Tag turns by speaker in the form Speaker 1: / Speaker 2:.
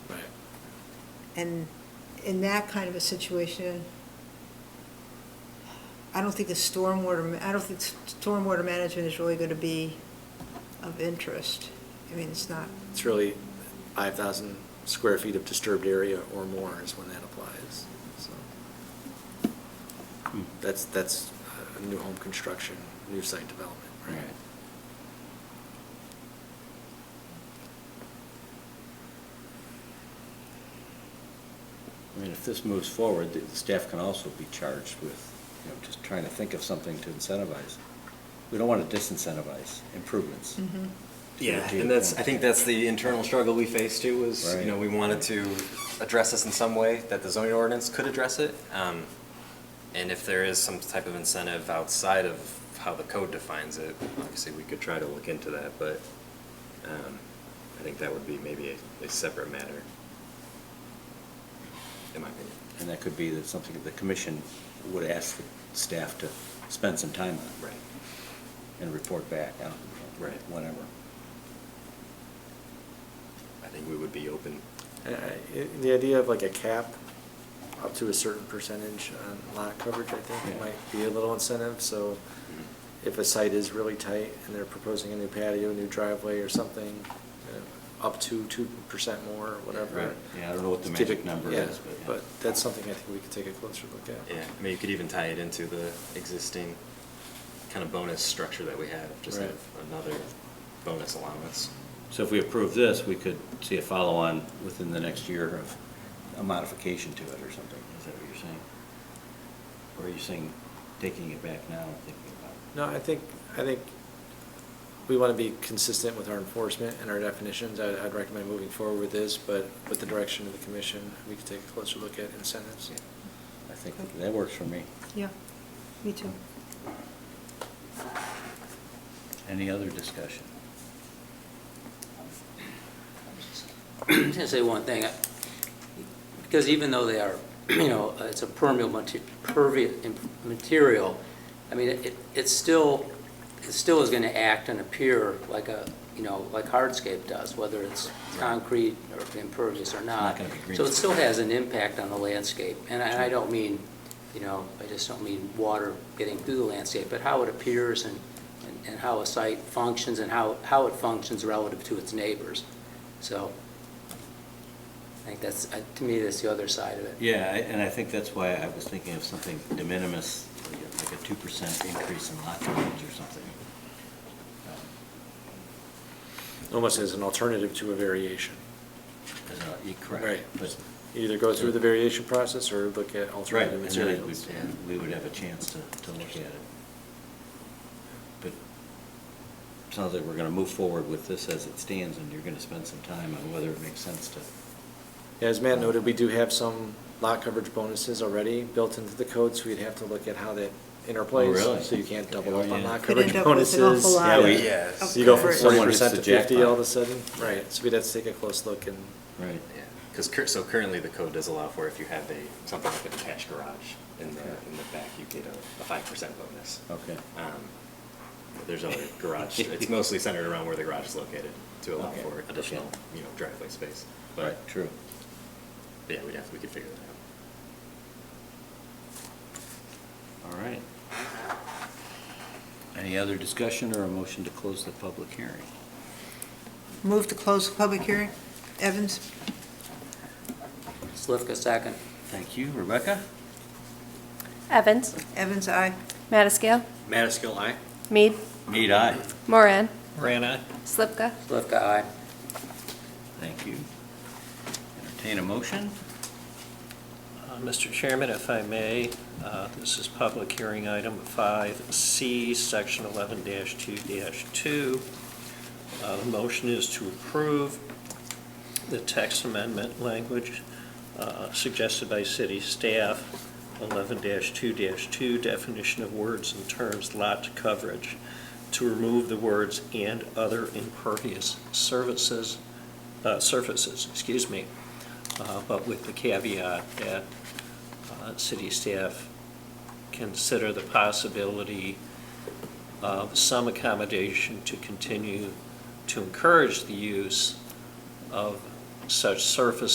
Speaker 1: And in that kind of a situation, I don't think the stormwater, ma- I don't think s- stormwater management is really going to be of interest. I mean, it's not,
Speaker 2: It's really 5,000 square feet of disturbed area or more is when that applies, so. That's, that's uh, new home construction, new site development, right?
Speaker 3: I mean, if this moves forward, the the staff can also be charged with, you know, just trying to think of something to incentivize. We don't want to disincentivize improvements.
Speaker 4: Mm-hmm.
Speaker 1: Mhm.
Speaker 4: Yeah, and that's, I think that's the internal struggle we faced too, was, you know,
Speaker 3: Right.
Speaker 4: we wanted to address this in some way, that the zoning ordinance could address it. Um, And if there is some type of incentive outside of how the code defines it, obviously, we could try to look into that, but um, I think that would be maybe a, a separate matter, in my opinion.
Speaker 3: And that could be that something that the commission would ask the staff to spend some time on.
Speaker 4: Right.
Speaker 3: And report back on.
Speaker 4: Right.
Speaker 3: Whenever.
Speaker 4: I think we would be open.
Speaker 2: And I- i- The idea of like a cap up to a certain percentage on lot coverage, I think,
Speaker 3: Yeah.
Speaker 2: might be a little incentive, so if a site is really tight and they're proposing a new patio, new driveway or something, uh, up to 2% more or whatever.
Speaker 3: Right. Yeah, I don't know what the
Speaker 2: It's
Speaker 3: magic
Speaker 2: typic-
Speaker 3: number
Speaker 2: yeah,
Speaker 3: is, but yeah.
Speaker 2: But that's something I think we could take a closer look at.
Speaker 4: Yeah, I mean, you could even tie it into the existing kind of bonus structure that we have, just
Speaker 2: Right.
Speaker 4: have another bonus allowance.
Speaker 3: So if we approve this, we could see a follow-on within the next year of a modification to it or something. Is that what you're saying? Or are you saying taking it back now and thinking about it?
Speaker 2: No, I think, I think we want to be consistent with our enforcement and our definitions. I'd, I'd recommend moving forward with this, but with the direction of the commission, we could take a closer look at incentives.
Speaker 3: I think that works for me.
Speaker 1: yeah, me too.
Speaker 3: Any other discussion?
Speaker 5: I'm just gonna say one thing, I- because even though they are, you know, uh, it's a permeable mate- pervia- im- material, I mean, it, it's still, it still is gonna act and appear like a, you know, like hardscape does, whether it's concrete or impervious or
Speaker 3: not
Speaker 5: not.
Speaker 3: gonna be green
Speaker 5: So it still
Speaker 3: space.
Speaker 5: has an impact on the landscape, and I, and I don't mean, you know, I just don't mean water getting through the landscape, but how it appears and, and- and how a site functions and how, how it functions relative to its neighbors. So I think that's, uh, to me, that's the other side of it.
Speaker 3: Yeah, I- and I think that's why I was thinking of something de minimis, like a- like a two percent increase in lot coverage or something. Um,
Speaker 2: Almost as an alternative to a variation.
Speaker 3: is that- you're Correct.
Speaker 2: Right.
Speaker 3: but-
Speaker 2: You Either go through the variation process or look at
Speaker 3: Right,
Speaker 2: alternative
Speaker 3: and then it
Speaker 2: materials.
Speaker 3: would- and we would have a chance to, to look at it. But sounds like we're gonna move forward with this as it stands, and you're gonna spend some time on whether it makes sense to.
Speaker 2: Yeah, As Matt noted, we do have some lot coverage bonuses already built into the code, so we'd have to look at how that interplays.
Speaker 3: Oh, really?
Speaker 2: So you can't double up
Speaker 3: Oh,
Speaker 2: on
Speaker 3: yeah.
Speaker 2: lot
Speaker 1: Could
Speaker 2: coverage
Speaker 1: end up with
Speaker 2: bonuses.
Speaker 1: an awful lot
Speaker 3: Yeah, we-
Speaker 1: of-
Speaker 4: Yes.
Speaker 1: of
Speaker 2: You go from
Speaker 1: coverage.
Speaker 2: forty
Speaker 3: Someone hits
Speaker 2: percent to
Speaker 3: the jackpot.
Speaker 2: fifty all of a sudden, right, so we'd have to take a close look and,
Speaker 3: Right.
Speaker 4: Yeah, because cur- so currently the code does allow for if you have a, something like an attached garage in the, in the back, you get a five percent bonus.
Speaker 3: Okay.
Speaker 4: Um, but There's other garage, it's mostly centered around where the garage is located to allow
Speaker 3: Okay,
Speaker 4: for
Speaker 3: okay.
Speaker 4: additional, you know, driveway space. But,
Speaker 3: Right, true.
Speaker 4: but yeah, we'd have, we could figure that out.
Speaker 3: All right. Any other discussion or a motion to close the public hearing?
Speaker 1: Move to close the public hearing. Evans?
Speaker 5: Slivka, second.
Speaker 3: Thank you. Rebecca?
Speaker 6: Evans,
Speaker 1: Evans, aye.
Speaker 6: Mattiscale,
Speaker 3: Madaskil, aye.
Speaker 6: Mead,
Speaker 3: Mead, aye.
Speaker 6: Moran,
Speaker 3: Moran, aye.
Speaker 6: Slivka.
Speaker 5: Slivka, aye.
Speaker 3: Thank you. Entertain a motion?
Speaker 7: Uh, Mr. Chairman, if I may, uh, this is public hearing item 5C, Section 11-2-2. Uh, The motion is to approve the text amendment language uh, suggested by city staff, 11-2-2, definition of words and terms, lot coverage, to remove the words "and other impervious services," uh, surfaces, excuse me, uh, but with the caveat that uh, city staff consider the possibility of some accommodation to continue to encourage the use of such surface